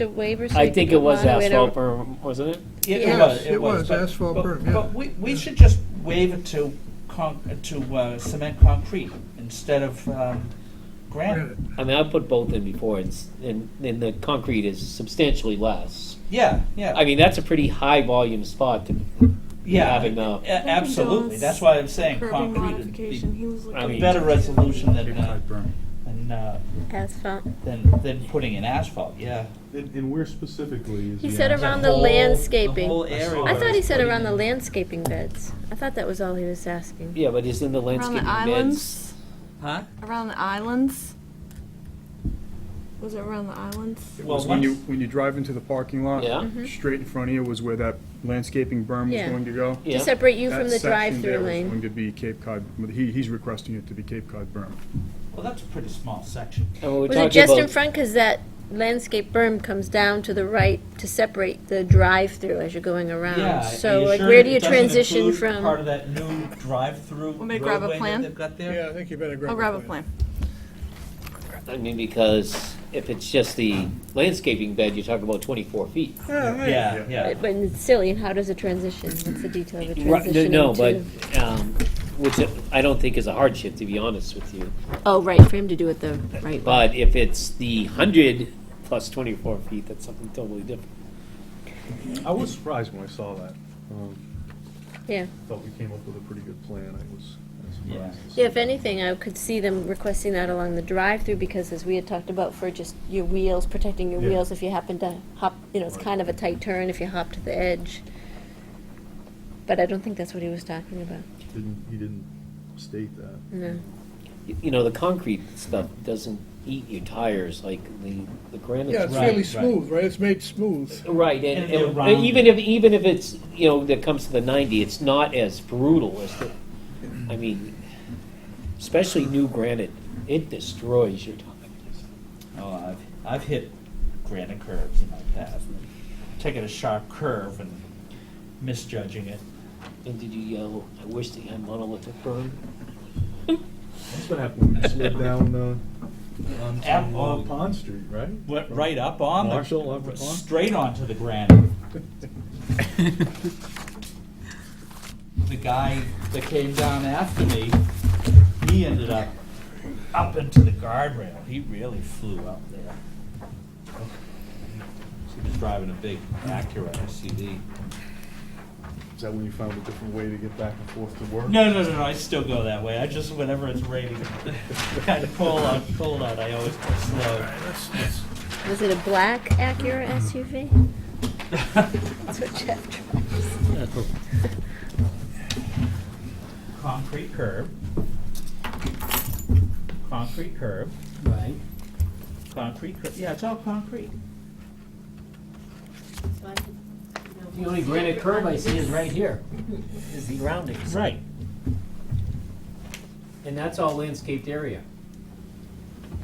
The waivers. I we think do it was on with our- asphalt berm, wasn't it? It Yeah. was, It it was. was, but- asphalt but- berm, yeah. But we, we should just waive it to con, to uh, cement concrete instead of um, granite. Granite. I mean, I put both in before, and, s- and, and the concrete is substantially less. Yeah, yeah, I mean, that's a pretty high volume spot to be Yeah. having a, A- absolutely, Jones that's why I'm saying Curbing concrete would modification, be he was I a mean- looking. better resolution than, uh, berm. than, uh, Asphalt. than, than putting in asphalt, yeah. And, and where specifically is He the said asphalt? around the whole- landscaping. The whole I saw area. I thought he said Putting around the in- landscaping beds. I thought that was all he was asking. yeah, but isn't the Around landscaping the beds? islands, Huh? around the islands? Was it around the islands? Well, It was when you, once- when you drive into the parking lot. Yeah. Straight in front of you was where that landscaping berm Mm-hmm. was Yeah. going to go. To Yeah, separate you from That the section drive-through there was lane. Going to be Cape Cod, he, he's requesting it to be Cape Cod berm. Well, that's a pretty small section. and when we're Was it talking just in about, front? Cause that landscape berm comes down to the right to separate the drive-through as you're going Yeah, around. are So you like, sure where do it you doesn't transition include Part from? of that new drive-through Want me to grab a roadway that plan? they've got there? Yeah, I think you better grab. I'll grab a plan. I mean, because if it's just the landscaping bed, you're talking about twenty-four feet. Yeah, yeah. But but it's silly, and how does it transition? What's the detail of a Right, no, transition No, but, into? um, which I don't think is a hardship, to be honest with you. Oh, right, for him to do it the right way. But if it's the hundred plus twenty-four feet, that's something totally different. I was surprised when I saw that. Um, Yeah. Thought we came up with a pretty good plan. I was I was Yeah. surprised. to see Yeah, if that. anything, I could see them requesting that along the drive-through because as we had talked about for just your wheels, protecting your Yeah. wheels if you happen to hop, you know, it's Right. kind of a tight turn if you hop to the edge. But I don't think that's what he was talking about, Didn't, he didn't state that. no. Y- You know, the concrete stuff doesn't eat your tires like the, the granite. Yeah, it's Right, fairly right. smooth, right? It's made smooth. Right, and, And they're and- round. even if, even if it's, you know, that comes to the ninety, it's not as brutal as the, I mean, especially new granite, it destroys your tires. Oh, I've, I've hit granite curves in my past, taking a sharp curve and misjudging it. And did you yell, I wish they had monolithic berm? That's what happened when you slid down, uh, onto, Ab- uh, Pond Street, right? Went From right up on the, Marshall, up to Pond? straight onto the granite. The guy that came down after me, he ended up up into the guardrail. He really flew up there. He was driving a big Acura SUV. Is that when you found a different way to get back and forth to work? No, no, no, no. I still go that way. I just whenever it's raining, kind of cold out, cold out. I always go slow. Was it a black Acura Mm-hmm. SUV? That's what Jeff drives. Concrete curb. Concrete curb. Right. Concrete curb. Yeah, it's all concrete. The only granite curve I see is right here, is the roundings, Right. and that's all landscaped area.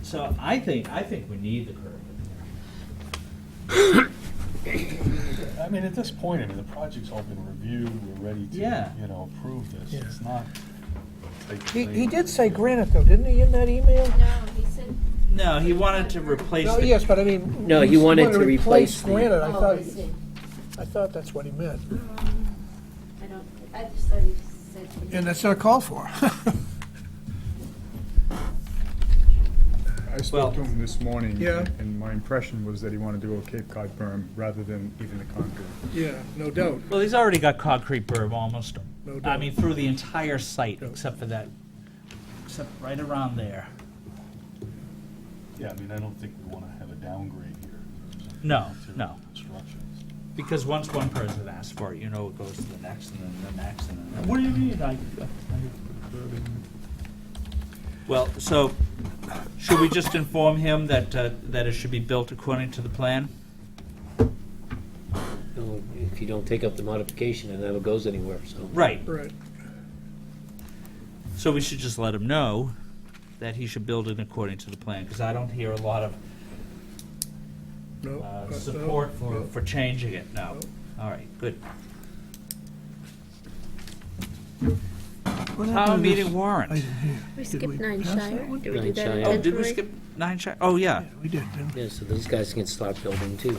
So I think I think we need the curb. I mean, at this point, I mean, the project's all been reviewed, we're ready to, Yeah. you know, approve this. It's not a tight He, he thing. did say granite though, didn't he, in that email? No, he wanted to replace No, the. Oh, yes, but I mean. No, he wanted to replace the- Granite, Oh, I thought, I thought that's what he meant. I don't, I just thought he said. And that's not called for. I Well- spoke to him this morning. Yeah. And my impression was that he wanted to go Cape Cod berm rather than even the concrete. Yeah, no doubt. Well, he's already got concrete berm almost. No I doubt. mean, through the entire site except for that, except right around there. Yeah, I mean, I don't think we wanna have a downgrade here. in terms of No, material no. Constructions. Because once one person asks for it, you know it goes to the next and then the next and then. What do you mean? I, Well, so, should we just inform him that, uh, that it should be built according to the plan? If you don't take up the modification, it never goes anywhere, so. Right, Right. so we should just let him know that he should build it according to the plan, because I don't hear a lot of, No, uh, no, support for, no. for changing it, no. All right, good. What Town happened to this- meeting warrant. We we skipped Nine pass that Shire, one? did we do Nine that Shire. Oh, did we intentionally? skip nine shi, oh, yeah. We did, didn't we? Yeah, so those guys can start building too.